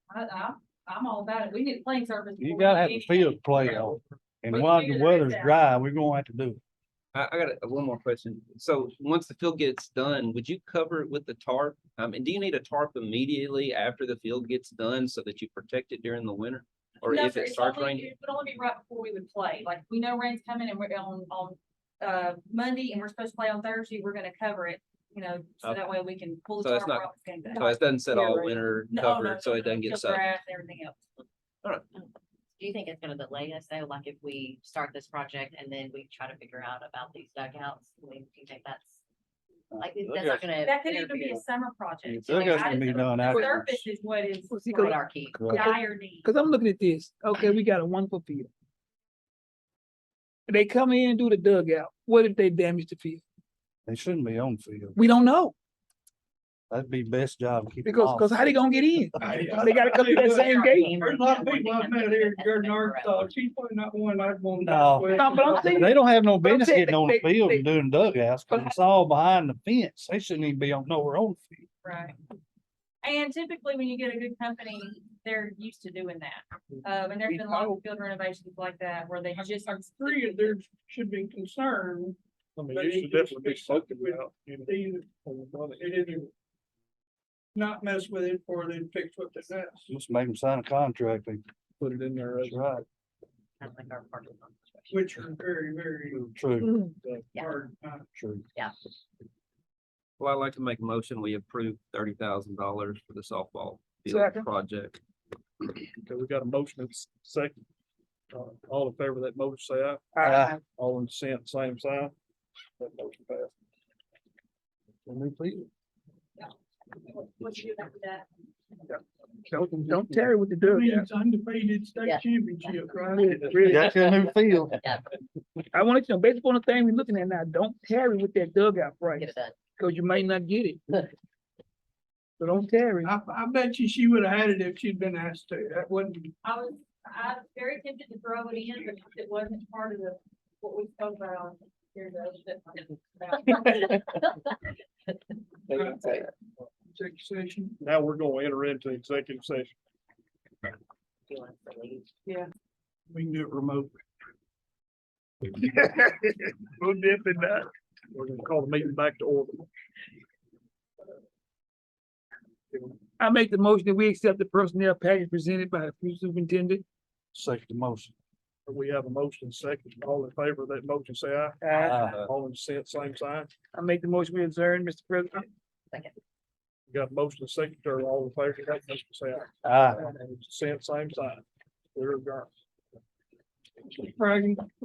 I, I, I'm all about it. We need playing surface. You before gotta we have do the field to play anything. on, We and can while figure the that weather's out. dry, we're gonna have to do it. I, I got a- one more question. So once the field gets done, would you cover it with the tarp? Um, and do you need a tarp immediately after the field gets done so that you protect it during the winter? Or No, if sir, it it's starts only- raining? It would only be right before we would play, like, we know rain's coming and we're on, on, uh, Monday and we're supposed to play on Thursday, we're gonna cover it, you know, so Okay. that way we can pull the. So that's tarp not- off and get So back. it doesn't set Yeah, all right. winter No, oh, no, covered, so no, it doesn't no, get just soaked. grass, Everything else. Do you think it's gonna delay us though? Like if we start this project and then we try to figure out about these dugouts, I mean, do you think that's? Like, that's not gonna. That could even be a interfere summer project. That Like, guy's I gonna be just- done the after. Surface is what is with our key. dire need. Cause I'm looking at this, okay, we got a wonderful field. They come in and do the dugout, what if they damage the field? They shouldn't be on field. We don't know, That'd be best job. to keep them because, off. cause how they gonna get in? There's They gotta come through that same gate. a lot of people I've met here in Jordan, Arkansas, she's probably not one I'd want. No. No, but I'm saying- They don't have no But I'm business saying getting they- on the they- field they- and doing dugouts, cause But- it's all behind the fence. They shouldn't even be on nowhere on the field. Right. And typically when you get a good company, they're used to doing that. Uh, and there's been lots of field renovations like that where they just. I'm free and there should be concern. but it should definitely be spoken about. It is Not mess with it or then fix what they mess. Just make them sign a contract. They put it in there. That's right. Sounds like our part of the situation. which are very, very True, Mm, Yeah. hard. uh, true. Well, I'd like to make a motion. We approve thirty thousand dollars for the softball Second. field project. Okay, we got a motion and s- second. Uh, all in favor of that motion, say aye. Aye. All in dissent, same sign. That motion passed. What you do after that? Don't, don't tarry with the dugout, Means undefeated state Yeah. championship, right? really, Got your new field. I want you to know, based upon the thing we're looking at now, don't tarry with that dugout Get price, it done. cause you might not get it. So don't tarry. I, I bet you she would have had it if she'd been asked to. That wouldn't, I was, I was very tempted to throw it in, but it wasn't part of the, what we spoke about. Here's a- take session. Now we're gonna enter into executive session. Do you want us to leave? We can do it remote. We'll dip in that. We're gonna call the meeting back to order. I make the motion that we accept the personnel package presented by the police superintendent. Second motion. We have a motion and second. All in favor of that motion, say aye. I, Uh, Aye. All in dissent, same sign. I make the motion we adjourn, Mr. President. We got a motion and second, or all in favor of that motion, say aye. Aye. All in dissent, same sign. We're adjourned. Frank,